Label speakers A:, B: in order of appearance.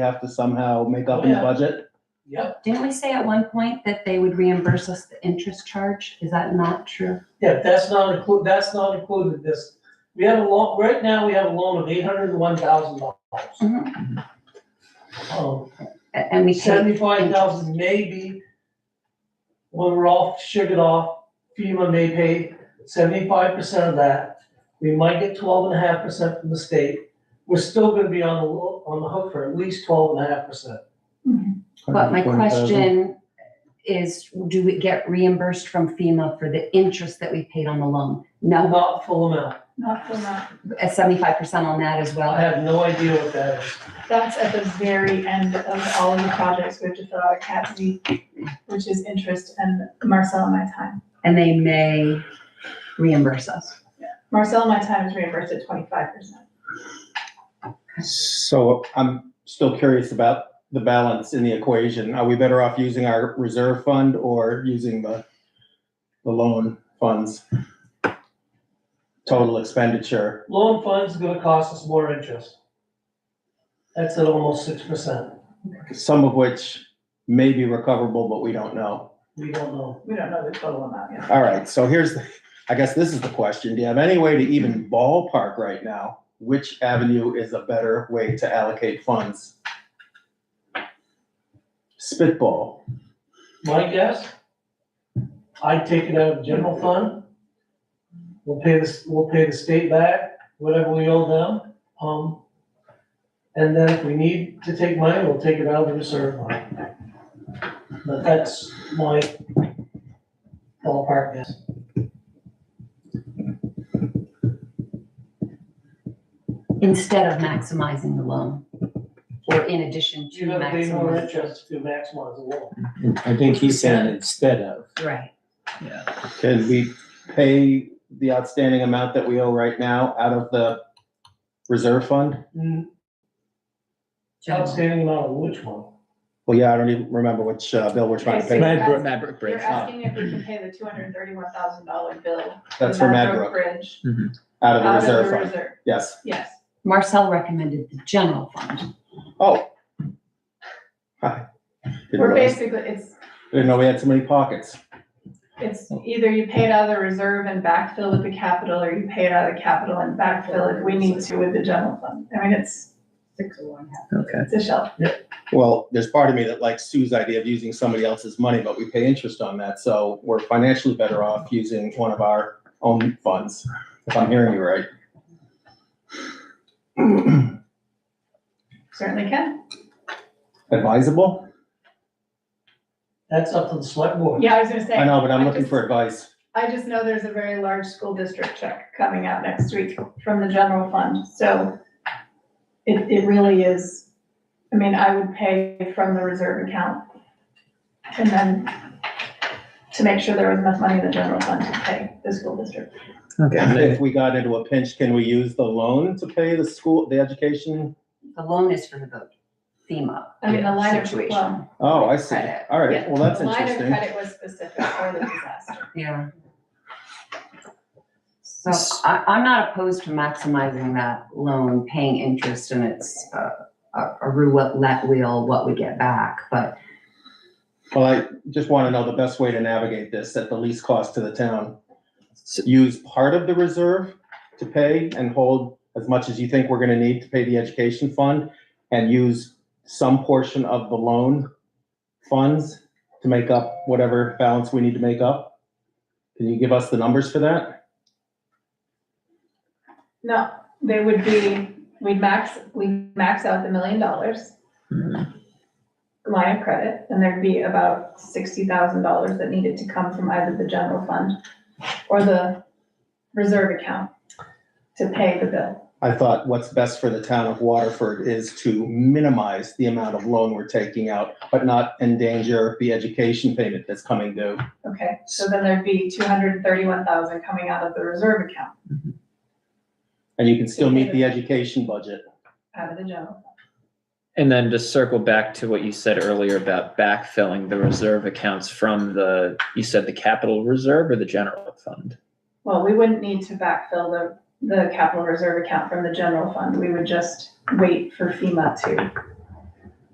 A: have to somehow make up in the
B: Yeah.
A: budget.
B: Yep,
C: Didn't we say at one point that they would reimburse us the interest charge? Is that not true?
B: yeah, that's not included, that's not included, this, we have a loan, right now, we have a loan of eight hundred and one thousand dollars. Um,
C: A- And we paid,
B: seventy-five thousand maybe, when we're all sugared off, FEMA may pay seventy-five percent of that. We might get twelve and a half percent from the state, we're still gonna be on the, lo- on the hook for at least twelve and a half percent.
C: but my
A: 120,000.
C: question is, do we get reimbursed from FEMA for the interest that we paid on the loan? No,
B: Not full amount,
D: Not for that.
C: seventy-five percent on that as
B: I
C: well.
B: have no idea what that is.
D: That's at the very end of all of the projects. We have to fill out a cat Z, which is interest and Marcel and my time.
C: And they may reimburse us.
D: Marcel and my time is reimbursed at twenty-five percent.
A: So I'm still curious about the balance in the equation. Are we better off using our reserve fund or using the, the loan funds? Total expenditure,
B: Loan funds is gonna cost us more interest. That's at almost six percent.
A: some of which may be recoverable, but we don't know.
B: We don't know.
D: We don't know the total amount yet.
A: All right, so here's, the- I guess this is the question. Do you have any way to even ballpark right now? Which avenue is a better way to allocate funds? Spitball.
B: My guess, I'd take it out of the general fund. We'll pay this, we'll pay the state back, whatever we owe them, um. And then if we need to take money, we'll take it out of the reserve fund. But that's my ballpark guess.
C: Instead of maximizing the loan, or in addition to
B: You gotta pay more
C: maximizing.
B: interest to maximize the loan.
E: I think he said instead of.
C: Right,
A: Can we pay the outstanding amount that we owe right now out of the reserve fund?
B: Mm,
C: general.
B: Outstanding amount of which one?
A: Well, yeah, I don't even remember which uh, bill we're trying to pay.
E: Madbrook,
D: You're
E: Madbrook
D: asking if we can pay the two hundred and thirty-one thousand dollar bill.
A: That's for Madbrook,
D: Bridge.
A: out of the
D: Out of the
A: reserve fund,
D: reserve,
A: yes.
D: yes.
C: Marcel recommended the general fund.
A: Oh. Hi. Didn't
D: We're
A: realize-
D: basically, it's,
A: Didn't know we had so many pockets.
D: it's either you pay it out of the reserve and backfill with the capital, or you pay it out of the capital and backfill if we need to with the general fund. I mean, it's,
E: Okay.
D: it's a shell.
A: Well, there's part of me that likes Sue's idea of using somebody else's money, but we pay interest on that, so we're financially better off using one of our own funds, if I'm hearing you right.
D: Certainly can.
A: Advisable?
B: That's up to the select board.
D: Yeah, I was gonna say.
A: I know, but I'm looking
D: just-
A: for advice.
D: I just know there's a very large school district check coming out next week from the general fund, so it, it really is, I mean, I would pay from the reserve account. And then to make sure there was enough money in the general fund to pay the school district.
E: Okay.
A: If we got into a pinch, can we use the loan to pay the school, the education?
C: The loan is for the FEMA
D: I mean, the line of,
C: situation.
D: well,
A: Oh, I see.
C: Credit.
A: All
D: Yeah.
A: right, well, that's
D: the line of
A: interesting.
D: credit was specific for the disaster.
C: Yeah. So I, I'm not opposed to maximizing that loan, paying interest, and it's uh, a a roulette wheel, what we get back, but
A: Well, I just want to know the best way to navigate this at the least cost to the town.
E: S-
A: Use part of the reserve to pay and hold as much as you think we're going to need to pay the education fund and use some portion of the loan funds to make up whatever balance we need to make up. Can you give us the numbers for that?
D: No, they would be, we'd max, we max out the million dollars.
E: Mhm.
D: line of credit, and there'd be about sixty thousand dollars that needed to come from either the general fund or the reserve account to pay the bill.
A: I thought what's best for the town of Waterford is to minimize the amount of loan we're taking out, but not endanger the education payment that's coming due.
D: Okay, so then there'd be two hundred and thirty-one thousand coming out of the reserve account,
A: And you can still meet the education budget.
D: out of the general.
E: And then just circle back to what you said earlier about backfilling the reserve accounts from the, you said the capital reserve or the general fund?
D: Well, we wouldn't need to backfill the, the capital reserve account from the general fund, we would just wait for FEMA to